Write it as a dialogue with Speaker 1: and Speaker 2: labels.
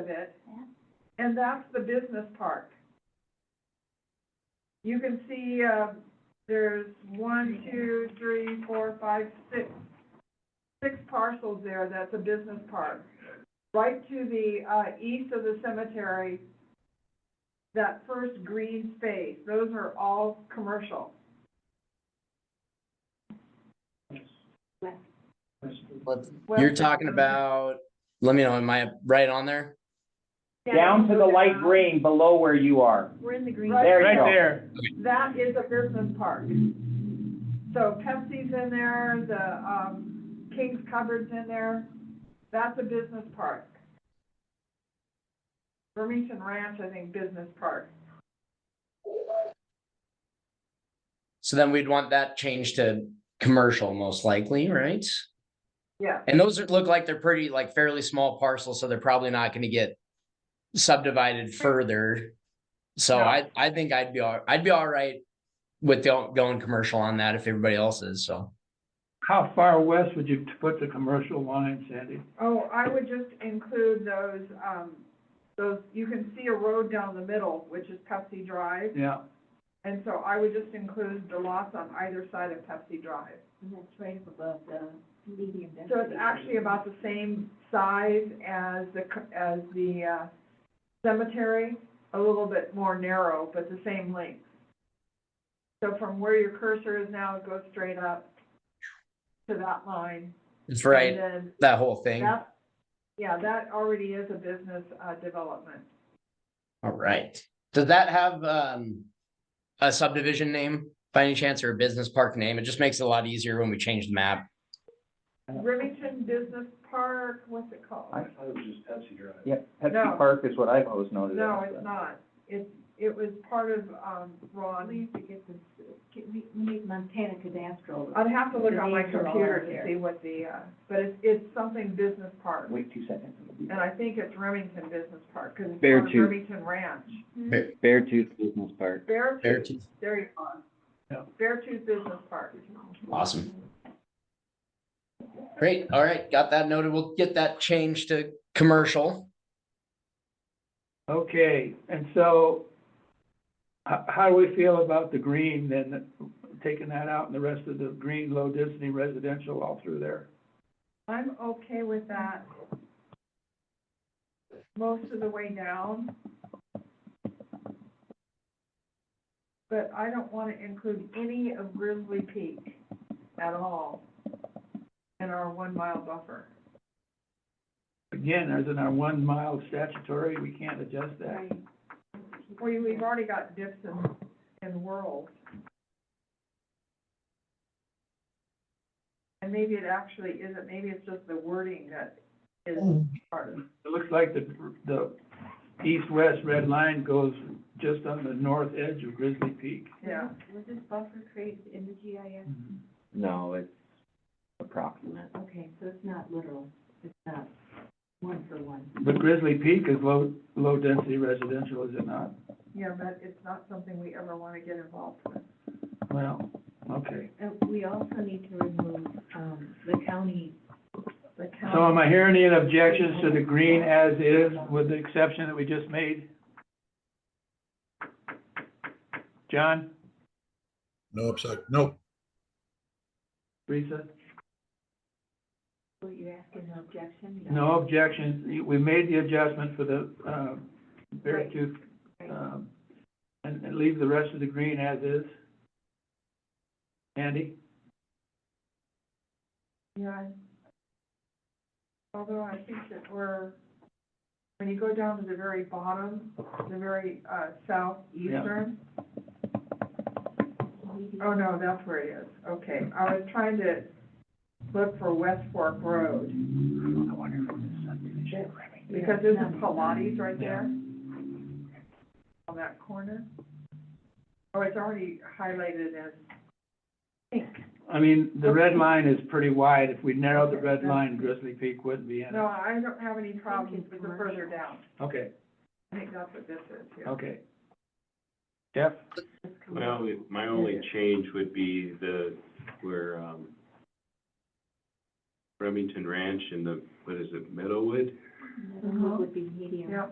Speaker 1: of it.
Speaker 2: Yeah.
Speaker 1: And that's the business park. You can see, uh, there's one, two, three, four, five, six, six parcels there, that's a business park. Right to the, uh, east of the cemetery, that first green space, those are all commercial.
Speaker 3: Let's-
Speaker 1: Well, um,
Speaker 3: You're talking about, let me know, am I right on there?
Speaker 4: Down to the light green below where you are.
Speaker 2: We're in the green.
Speaker 1: Right.
Speaker 4: There you
Speaker 5: Right
Speaker 4: go.
Speaker 5: there,
Speaker 1: That is a business park. So Pepsi's in there, the, um, King's Cupboard's in there, that's a business park. Remington Ranch, I think, business park.
Speaker 3: So then we'd want that changed to commercial most likely, right?
Speaker 1: Yeah,
Speaker 3: And those are- look like they're pretty, like fairly small parcels, so they're probably not gonna get subdivided further. So
Speaker 1: No.
Speaker 3: I, I think I'd be all, I'd be all right with go- going commercial on that if everybody else is, so.
Speaker 5: how far west would you put the commercial line, Sandy?
Speaker 1: oh, I would just include those, um, those, you can see a road down the middle, which is Pepsi Drive.
Speaker 5: Yeah,
Speaker 1: And so I would just include the lots on either side of Pepsi Drive.
Speaker 2: And that's right up above the medium density.
Speaker 1: So it's actually about the same size as the, c- as the uh, cemetery, a little bit more narrow, but the same length. So from where your cursor is now, it goes straight up to that line.
Speaker 3: That's right,
Speaker 1: And
Speaker 3: that whole
Speaker 1: then
Speaker 3: thing, all
Speaker 1: that, yeah, that already is a business uh, development.
Speaker 3: right. Does that have, um, a subdivision name by any chance or a business park name? It just makes it a lot easier when we change the map.
Speaker 1: Remington Business Park, what's it called?
Speaker 6: I thought it was just Pepsi Drive.
Speaker 4: Yeah,
Speaker 1: No.
Speaker 4: Pepsi Park is what I've always noted.
Speaker 1: No, it's not. It's, it was part of um,
Speaker 2: We
Speaker 1: Ron.
Speaker 2: used to get this, get, we, we need Montana cadastral.
Speaker 1: I'd have to look on my
Speaker 2: The names are all
Speaker 1: computer
Speaker 2: there.
Speaker 1: to see what the, uh, but it's, it's something business park.
Speaker 4: Wait two seconds.
Speaker 1: And I think it's Remington Business Park, because it's
Speaker 4: Bear
Speaker 1: on
Speaker 4: Tooth.
Speaker 1: Remington Ranch.
Speaker 4: Beartooth Business Park.
Speaker 1: Bear
Speaker 3: Fair
Speaker 1: Tooth,
Speaker 3: to-
Speaker 1: there you
Speaker 5: Yeah.
Speaker 1: go. Bear Tooth Business Park.
Speaker 3: Awesome. Great, all right, got that noted. We'll get that changed to commercial.
Speaker 5: okay, and so how, how do we feel about the green then, taking that out and the rest of the green low density residential all through there?
Speaker 1: I'm okay with that. Most of the way down. But I don't want to include any of Grizzly Peak at all in our one mile buffer.
Speaker 5: Again, there's in our one mile statutory, we can't adjust that.
Speaker 2: Right.
Speaker 1: We, we've already got dips in, in world. And maybe it actually isn't, maybe it's just the wording that is part of.
Speaker 5: It looks like the, the east-west red line goes just on the north edge of Grizzly Peak.
Speaker 1: Yeah.
Speaker 2: Was this buffer created in the GIS?
Speaker 4: Mm-hmm. No, it's approximate.
Speaker 2: Okay, so it's not literal, it's not one for one.
Speaker 5: But Grizzly Peak is low, low density residential, is it not?
Speaker 1: Yeah, but it's not something we ever want to get involved with.
Speaker 5: Well, okay.
Speaker 2: Uh, we also need to remove, um, the county, the county.
Speaker 5: So am I hearing any objections to the green as is with the exception that we just made? John,
Speaker 7: No upside, no,
Speaker 5: Teresa?
Speaker 2: Were you asking an objection?
Speaker 5: No objections. We made the adjustment for the, uh, bear tooth,
Speaker 2: Right.
Speaker 5: um, and, and leave the rest of the green as is. Andy?
Speaker 1: Yeah. Although I think that we're, when you go down to the very bottom, the very, uh, southeastern, oh, no, that's where it is, okay. I was trying to look for West Fork Road. Because there's a Pilates right there on that corner. Oh, it's already highlighted as pink.
Speaker 5: I mean, the red line is pretty wide. If we narrowed the red line, Grizzly Peak wouldn't be in it.
Speaker 1: No, I don't have any problems with the further down.
Speaker 5: Okay,
Speaker 1: I think that's what this is, yeah.
Speaker 5: okay. Jeff?
Speaker 6: My only, my only change would be the, where, um, Remington Ranch in the, what is it, Meadowwood?
Speaker 8: Wood would be medium.
Speaker 2: Yeah.